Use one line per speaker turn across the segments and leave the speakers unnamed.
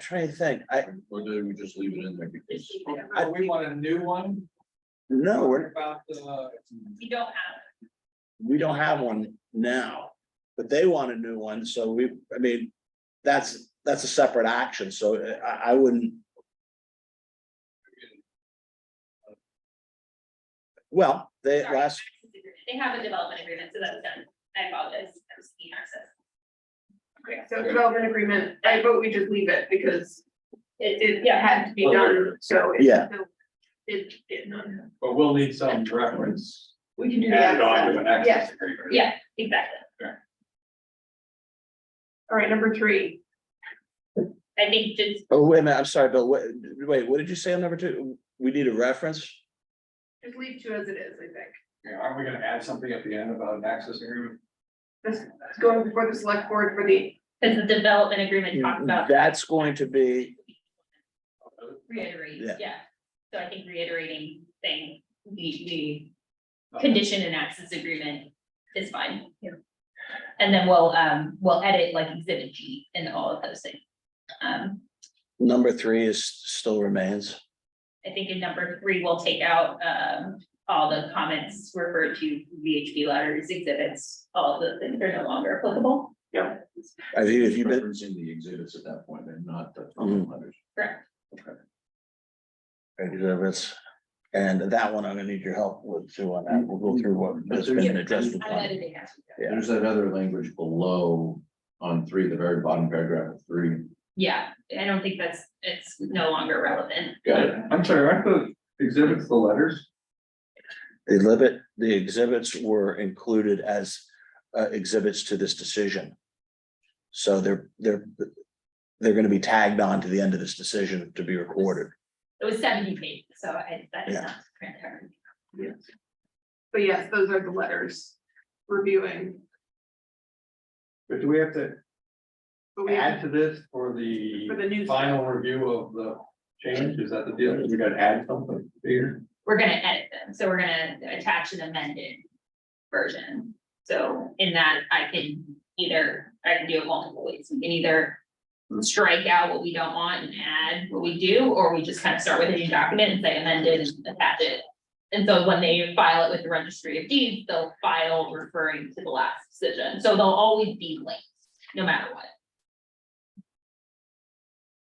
trying to think, I,
Or do we just leave it in there because?
I-
We want a new one
no, we're,
about uh, the,
We don't have,
we don't have one now. But they want a new one, so we, I mean, that's, that's a separate action, so I, I wouldn't. Well, they,
sorry,
last,
they have a development agreement, so that's done. I apologize, I was seeking access.
Okay, so development agreement, I vote we just leave it because it, it had to be done, so. it-
Yeah.
It, it, none.
but we'll need some reference
we can do that.
added on to an access
Yes,
agreement.
Yeah, exactly.
all right, number three,
I think just,
oh, wait a minute, I'm sorry, Bill, what, wait, what did you say on number two? We need a reference?
just leave two as it is, I think.
Yeah, Aren't we gonna add something at the end about an access agreement?
This is going before the select board for the,
because the development
Mm,
agreement talks about.
That's going to be,
Reiterate,
Yeah.
yeah. So I think reiterating saying the, the
Okay.
condition and access agreement is fine. And then we'll, um, we'll edit like exhibit G and all of those things. Um,
number three is, still remains.
I think in number three, we'll take out, um, all the comments referred to VHB letters, exhibits, all of those things are no longer applicable.
I think if you've been,
Referencing the exhibits at that point and not the
Mhm.
comment letters.
Correct.
exhibits. And that one, I'm gonna need your help with too on that. We'll go through what has
Yeah,
been
but
addressed. with
I'm
that.
editing that.
Yeah.
There's that other language below on three, the very bottom paragraph of three.
Yeah, I don't think that's, it's no longer relevant.
Got it.
I'm sorry, aren't the exhibits the letters?
The exhibit, the exhibits were included as uh, exhibits to this decision. So they're, they're, they're gonna be tagged on to the end of this decision to be recorded.
It was seventy pages, so I, that is
Yeah.
not transparent.
but yes, those are the letters reviewing.
But do we have to
But we-
add to this for the
For the new-
final review of the change? Is that the deal? We gotta add something here?
we're gonna edit them, so we're gonna attach an amended version. So in that, I can either, I can do it multiple ways, we can either strike out what we don't want and add what we do, or we just kind of start with a new document and say amended and attach it. And so when they file it with the registry of deeds, they'll file referring to the last decision, so they'll always be linked, no matter what.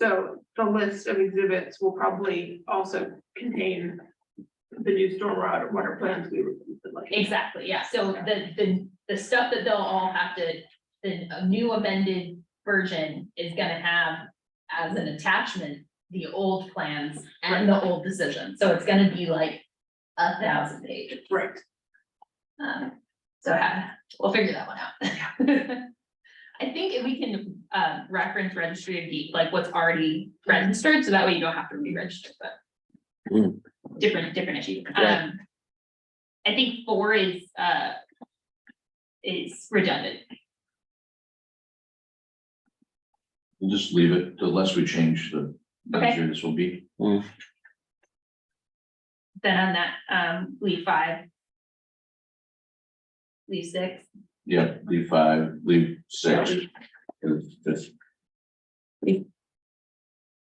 So the list of exhibits will probably also contain the new stormwater water plans we were like.
Exactly, yeah, so the, the, the stuff that they'll all have to, the new amended version is gonna have as an attachment, the old plans and the old decision, so it's gonna be like a thousand pages.
Right,
Um, so ha- we'll figure that one out. I think if we can, uh, reference registry of deed, like what's already registered, so that way you don't have to re-register, but.
Hmm.
Different, different issue.
Right.
Um. I think four is, uh. Is redundant.
We'll just leave it the less we change the.
Okay.
easier This will be.
Then on that, um, leave five. Leave six.
Yeah, leave five, leave six. and that's-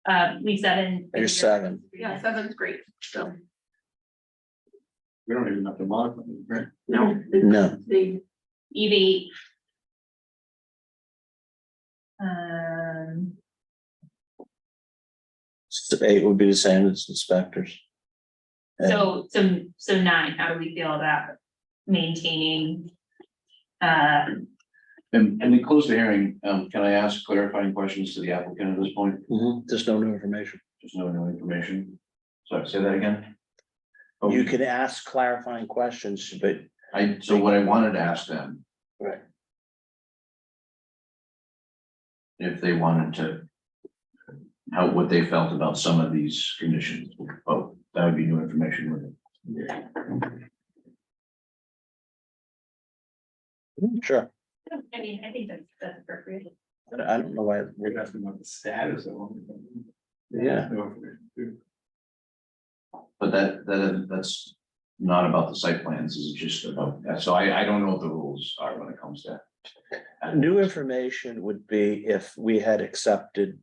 Um, leave seven.
There's seven.
yeah, seven's great, so,
We don't even have to modify it, right?
no. they-
No.
They,
Leave eight. Um.
So Eight would be the same as inspectors. And-
So, so, so nine, how do we feel about maintaining? Uh,
And, and we close the hearing. Um, can I ask clarifying questions to the applicant at this point?
Mhm, There's no new information.
There's no new information. Sorry, say that again.
You can ask clarifying questions, but
I, so what I wanted to ask them.
Right.
If they wanted to. How, what they felt about some of these conditions, oh, that would be new information, wouldn't it?
sure,
I mean, I think that's, that's appropriate.
I don't- I don't know why,
We're asking about the status of them.
yeah,
but that, that, that's not about the site plans, it's just about, that. so I, I don't know what the rules are when it comes to.
new information would be if we had accepted